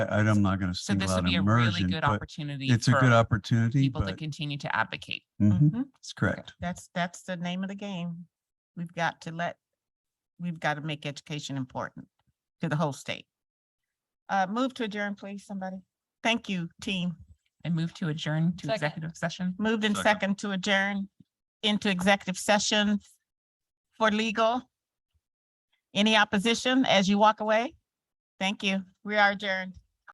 I, I'm not going to So single this would out be a really immersion, good but opportunity. it's a for good opportunity, People to but continue to advocate. Mhm, Mhm. it's correct. That's, that's the name of the game. We've got to let, we've got to make education important to the whole state. Uh, move to adjourn, please, somebody. Thank you, team. and move to adjourn to Second. executive session. Moved in Second. second to adjourn into executive session for legal. Any opposition as you walk away? Thank you. We are adjourned.